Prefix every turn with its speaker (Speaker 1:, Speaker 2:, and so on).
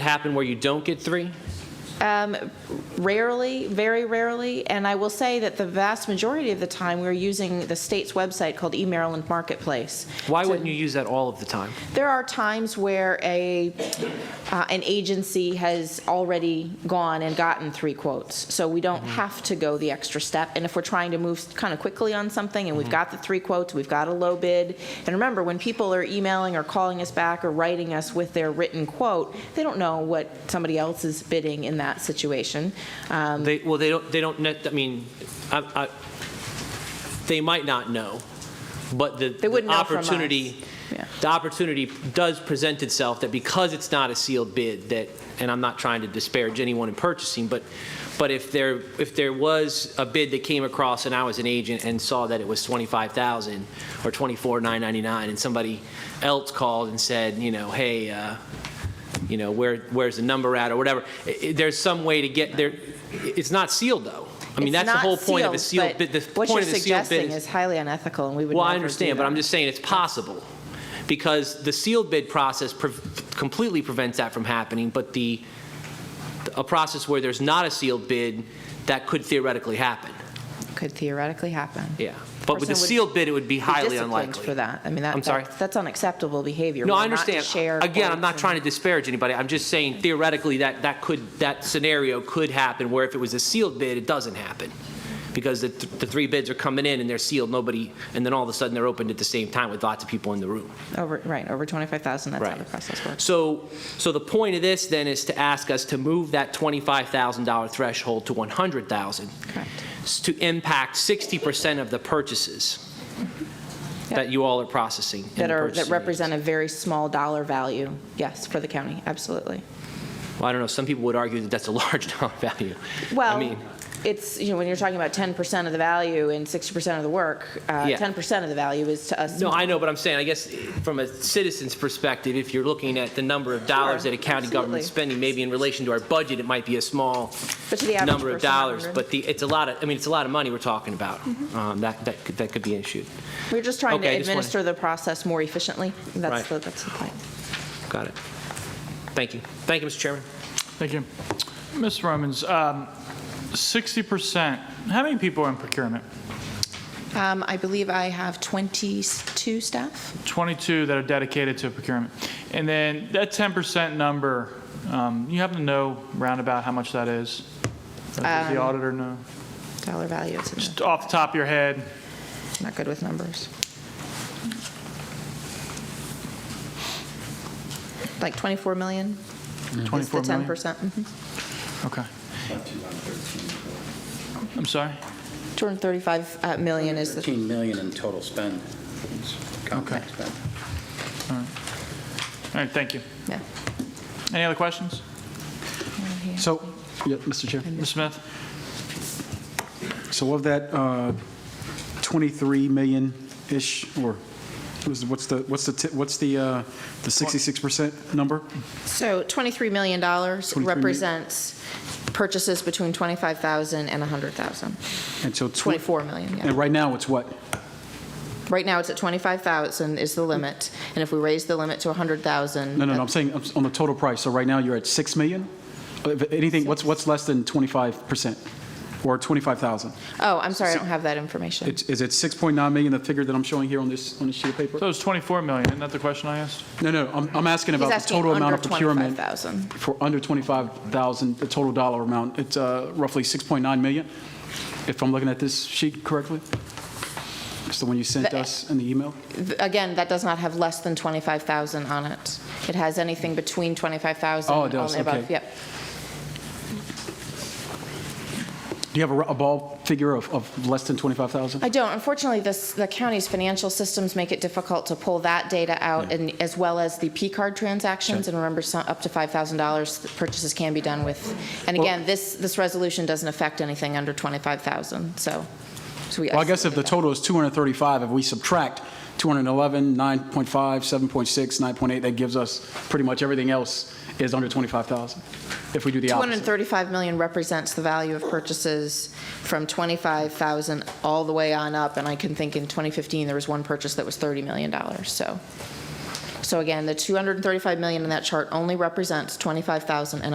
Speaker 1: happen where you don't get three?
Speaker 2: Rarely, very rarely, and I will say that the vast majority of the time, we're using the state's website called eMaryland Marketplace.
Speaker 1: Why wouldn't you use that all of the time?
Speaker 2: There are times where a, uh, an agency has already gone and gotten three quotes, so we don't have to go the extra step. And if we're trying to move kind of quickly on something, and we've got the three quotes, we've got a low bid, and remember, when people are emailing or calling us back or writing us with their written quote, they don't know what somebody else is bidding in that situation. Um,
Speaker 1: They, well, they don't, they don't, net- I mean, I, I, they might not know, but the. the
Speaker 2: wouldn't know from us.
Speaker 1: opportunity-
Speaker 2: Yeah.
Speaker 1: The opportunity does present itself that because it's not a sealed bid, that, and I'm not trying to disparage anyone in purchasing, but, but if there, if there was a bid that came across and I was an agent and saw that it was 25,000 or 24,999, and somebody else called and said, you know, hey, uh, you know, where, where's the number at or whatever. I- I- There's some way to get there. It's not sealed though. I mean,
Speaker 2: It's
Speaker 1: that's the
Speaker 2: not
Speaker 1: whole point of a sealed bid.
Speaker 2: but
Speaker 1: The
Speaker 2: What you're
Speaker 1: point of the sealed
Speaker 2: suggesting
Speaker 1: bid
Speaker 2: is highly unethical, and we would
Speaker 1: Well, I
Speaker 2: never do
Speaker 1: understand, but
Speaker 2: that.
Speaker 1: I'm just saying it's possible because the sealed bid process pre- completely prevents that from happening, but the, a process where there's not a sealed bid, that could theoretically happen.
Speaker 2: Could theoretically happen.
Speaker 1: Yeah. But with the
Speaker 2: Person would
Speaker 1: sealed bid, it would be
Speaker 2: be
Speaker 1: highly
Speaker 2: disciplined
Speaker 1: unlikely.
Speaker 2: for that. I mean, that,
Speaker 1: I'm sorry?
Speaker 2: that's- that's unacceptable behavior.
Speaker 1: No,
Speaker 2: We
Speaker 1: I
Speaker 2: are not to
Speaker 1: understand.
Speaker 2: share
Speaker 1: Again, I'm
Speaker 2: quotes
Speaker 1: not
Speaker 2: and-
Speaker 1: trying to disparage anybody. I'm just saying theoretically that, that could, that scenario could happen where if it was a sealed bid, it doesn't happen. Because the, th- the three bids are coming in and they're sealed, nobody, and then all of a sudden they're opened at the same time with lots of people in the room.
Speaker 2: Over, right, over 25,000, that's how
Speaker 1: Right.
Speaker 2: the process works.
Speaker 1: So, so the point of this then is to ask us to move that $25,000 threshold to 100,000
Speaker 2: Correct.
Speaker 1: s- to impact 60% of the purchases that you all are processing. in the
Speaker 2: That are, that
Speaker 1: purchasing agency.
Speaker 2: represent a very small dollar value, yes, for the county, absolutely.
Speaker 1: Well, I don't know, some people would argue that that's a large dollar value. I
Speaker 2: Well,
Speaker 1: mean,
Speaker 2: it's, you know, when you're talking about 10% of the value and 60% of the work, uh,
Speaker 1: Yeah.
Speaker 2: 10% of the value is to us.
Speaker 1: no, I know, but I'm saying, I guess, from a citizen's perspective, if you're looking at the number of dollars that
Speaker 2: Sure,
Speaker 1: a county government's
Speaker 2: absolutely.
Speaker 1: spending, maybe in relation to our budget, it might be a small
Speaker 2: But to the average
Speaker 1: number of
Speaker 2: person, I
Speaker 1: dollars,
Speaker 2: wonder.
Speaker 1: but the, it's a lot of, I mean, it's a lot of money we're talking about.
Speaker 2: Mm-hmm.
Speaker 1: Um, That, that could, that could be an issue.
Speaker 2: We're just trying to
Speaker 1: Okay, I just wanted-
Speaker 2: administer the process more efficiently,
Speaker 1: Right.
Speaker 2: that's, the- that's the point.
Speaker 1: Got it. Thank you. Thank you, Mr. Chairman.
Speaker 3: Thank you. Ms. Romans, um, 60%, how many people are in procurement?
Speaker 2: Um, I believe I have 22 staff?
Speaker 3: 22 that are dedicated to procurement. And then that 10% number, um, you happen to know roundabout how much that is? Or Does the auditor know?
Speaker 2: Dollar value, it's in there.
Speaker 3: Just off the top of your head?
Speaker 2: not good with numbers. Like 24 million? Is
Speaker 3: 24 million?
Speaker 2: The 10%? Mhm.
Speaker 3: Okay. I'm sorry?
Speaker 2: 235 uh, million is the,
Speaker 4: 13 million in total spend,
Speaker 3: Okay.
Speaker 4: compact spend.
Speaker 3: All right, thank you.
Speaker 2: yeah.
Speaker 3: Any other questions?
Speaker 5: So, yeah, Mr. Chair,
Speaker 3: Ms. Smith?
Speaker 5: so of that uh, 23 million-ish, or was- what's the, what's the, ti- what's the, uh, the 66% number?
Speaker 2: So $23 million
Speaker 5: million.
Speaker 2: represents purchases between 25,000 and 100,000.
Speaker 5: And so. tw-
Speaker 2: 24 million, yeah.
Speaker 5: And right now, it's what?
Speaker 2: Right now, it's at 25,000 is the limit, and if we raise the limit to 100,000.
Speaker 5: No, no, no, I'm saying I'm s- on the total price, so right now, you're at 6 million? Uh, if Anything, what's, what's less than 25% or 25,000?
Speaker 2: Oh, I'm sorry, I don't have that information.
Speaker 5: It's- Is it 6.9 million, the figure that I'm showing here on this, on this sheet of
Speaker 3: So
Speaker 5: paper?
Speaker 3: it's 24 million, isn't that the question I asked?
Speaker 5: No, no, I'm, I'm asking
Speaker 2: He's
Speaker 5: about the
Speaker 2: asking
Speaker 5: total amount
Speaker 2: under
Speaker 5: of procurement.
Speaker 2: 25,000.
Speaker 5: for under 25,000, the total dollar amount, it's uh, roughly 6.9 million, if I'm looking at this sheet correctly? It's the one you sent
Speaker 2: The-
Speaker 5: us in the email?
Speaker 2: Again, that does not have less than 25,000 on it. It has anything between 25,000.
Speaker 5: Oh, it does,
Speaker 2: and above.
Speaker 5: okay.
Speaker 2: Yep.
Speaker 5: Do you have a r- a ball figure of, of less than 25,000?
Speaker 2: I don't. Unfortunately, this, the county's financial systems make it difficult to pull that data out, and as well as the P-card transactions. And remember, some, up to $5,000 th- purchases can be done with. And again, this, this resolution doesn't affect anything under 25,ollars so. so we
Speaker 5: Well, I guess if the
Speaker 2: isolated that.
Speaker 5: total is 235, if we subtract 211, 9.5, 7.6, 9.8, that gives us pretty much everything else is under 25,000, if we do the opposite.
Speaker 2: 235 million represents the value of purchases from 25,000 all the way on up, and I can think in 2015, there was one purchase that was $30 million, so. So again, the 235 million in that chart only represents 25,000 and